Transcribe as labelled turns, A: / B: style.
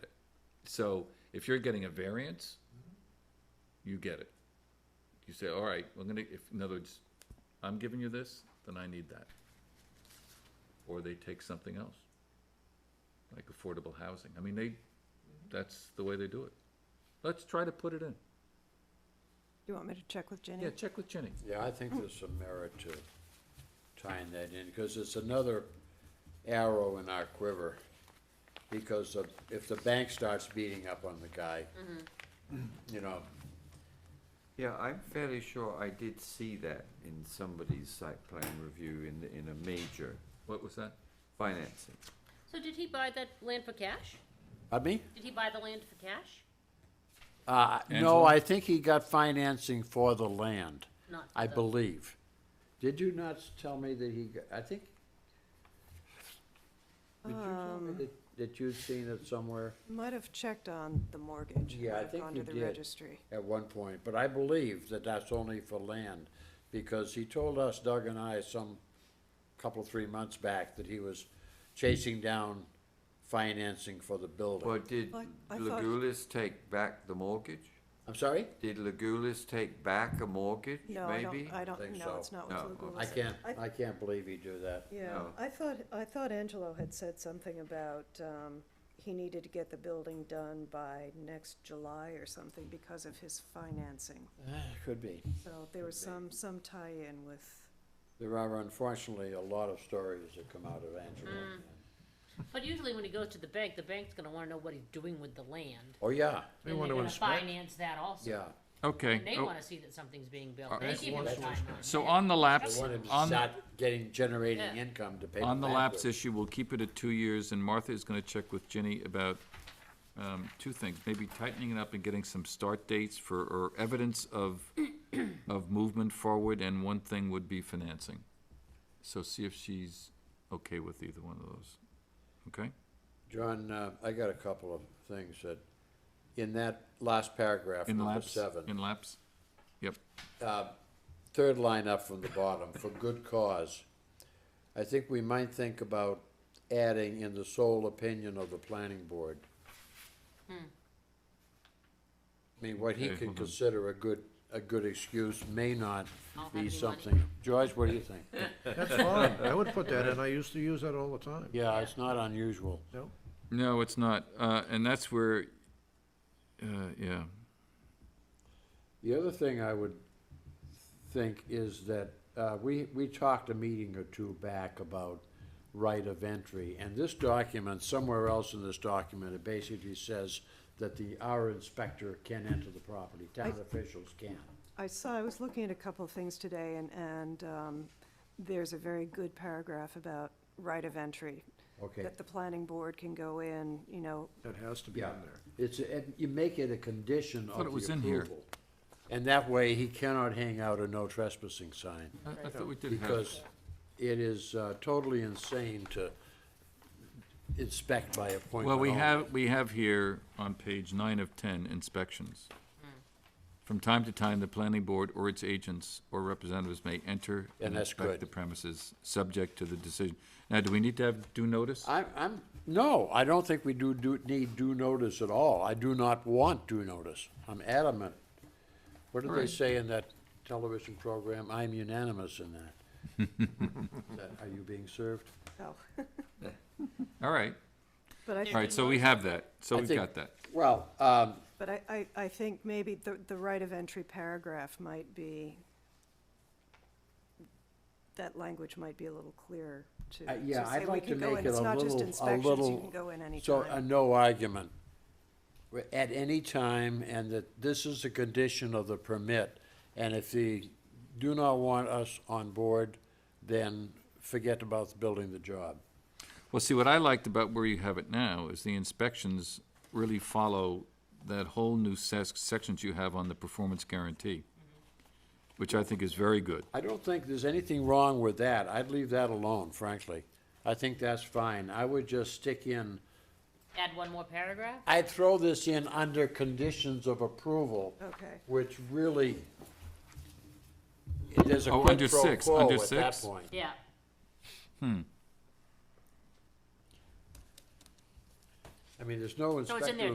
A: So if you're getting a variance, you get it. You say, all right, I'm gonna, if, in other words, I'm giving you this, then I need that. Or they take something else, like affordable housing. I mean, they, that's the way they do it. Let's try to put it in.
B: You want me to check with Jenny?
A: Yeah, check with Jenny.
C: Yeah, I think there's some merit to tying that in, because it's another arrow in our quiver. Because of, if the bank starts beating up on the guy, you know,
D: Yeah, I'm fairly sure I did see that in somebody's site plan review in, the- in a major
A: What was that?
D: financing.
E: So did he buy that land for cash?
C: I mean,
E: Did he buy the land for cash?
C: uh, no,
A: Angela?
C: I think he got financing for the land,
E: Not for
C: I
E: the-
C: believe. Did you not s- tell me that he, got- I think? Did you tell
E: Um.
C: me that, that you'd seen it somewhere?
B: Might have checked on the mortgage.
C: Yeah, I
B: might have
C: think
B: gone
C: you
B: to the
C: did.
B: registry.
C: at one point, but I believe that that's only for land, because he told us, Doug and I, some couple, three months back, that he was chasing down financing for the
D: Well,
C: building.
D: did
B: Like, I thought-
D: Legulis take back the mortgage?
C: I'm sorry?
D: Did Legulis take back a mortgage,
B: No, I
D: maybe?
B: don't, I
C: Think
B: don't, no,
C: so.
B: it's not
D: No,
B: with Laguna.
C: I can't,
B: I-
C: I can't believe he do that.
B: Yeah,
D: No.
B: I thought, I thought Angelo had said something about, um, he needed to get the building done by next July or something because of his financing.
A: Eh,
C: Could be.
B: So there was some, some tie-in with,
C: There are unfortunately a lot of stories that come out of Angelo.
E: But usually when he goes to the bank, the bank's gonna wanna know what he's doing with the land.
C: Oh, yeah,
E: They wanna Finance that also.
C: yeah.
A: Okay.
E: And they
A: oh,
E: wanna see that something's being built. They
A: Alright.
E: give him a timeline.
A: So on the lapse,
C: They wanted to
A: on,
C: start getting, generating
E: Yeah.
C: income to pay the
A: on the lapse
C: back.
A: issue, we'll keep it at two years, and Martha is gonna check with Ginny about, um, two things, maybe tightening it up and getting some start dates for, or evidence of, of movement forward, and one thing would be financing. So see if she's okay with either one of those, okay?
C: John, uh, I got a couple of things that, in that last paragraph,
A: In
C: number
A: lapse,
C: seven.
A: in lapse, yep,
C: third line up from the bottom, for good cause. I think we might think about adding in the sole opinion of the planning board. I mean, what he
A: Okay,
C: can
A: hold on.
C: consider a good, a good excuse may not
E: I'll have any
C: be
E: money.
C: something. George, what do you think?
F: That's fine, I would put that in, I used to use that all the time,
C: Yeah, it's not unusual.
F: no?
A: no, it's not, uh, and that's where, uh, yeah,
C: The other thing I would think is that, uh, we, we talked a meeting or two back about right of entry, and this document, somewhere else in this document, it basically says that the, our inspector can enter the property, town officials can.
B: I saw, I was looking at a couple of things today and, and, um, there's a very good paragraph about right of entry.
C: Okay.
B: That the planning board can go in, you know,
F: That has to be in there.
C: It's, and you make it a condition
A: Thought
C: of the
A: it was in here.
C: approval. And that way, he cannot hang out a no trespassing sign.
A: I, I thought we did have.
C: because it is uh, totally insane to inspect by appointment.
A: Well, we
C: only.
A: have, we have here on page nine of ten inspections. From time to time, the planning board or its agents or representatives may enter and
C: And that's
A: inspect
C: good.
A: the premises, subject to the decision. Now, do we need to have due notice?
C: I'm, I'm, no, I don't think we do, do, need due notice at all. I do not want due notice. I'm adamant. What did they
A: Right.
C: say in that television program? I'm unanimous in that. Is that Are you being served?
B: oh,
A: All right,
B: but I
A: all right, so we have that, so
C: I
A: we've
C: think-
A: got that.
C: Well, um,
B: But I, I, I think maybe the, the right of entry paragraph might be, that language might be a little clearer to.
C: Uh, yeah,
B: to
C: I'd
B: say we
C: like
B: can
C: to
B: go
C: make
B: in.
C: it
B: It's
C: a
B: not just
C: little- a
B: inspections, You
C: little-
B: can go in
C: So, uh, a
B: anytime.
C: no argument. We're At any time, and that this is a condition of the permit, and if they do not want us on board, then forget about building the job.
A: Well, see, what I liked about where you have it now is the inspections really follow that whole new ses- sections you have on the performance guarantee, which I think is very good.
C: I don't think there's anything wrong with that. I'd leave that alone, frankly. I think that's fine. I would just stick in,
E: Add one more paragraph?
C: I'd throw this in under conditions of approval,
B: Okay,
C: which really, there's a
A: Oh,
C: quid
A: under
C: pro
A: six,
C: quo
A: under
C: at that
A: six?
C: point.
E: Yeah.
C: I mean, there's no
E: So
C: inspector
E: it's in there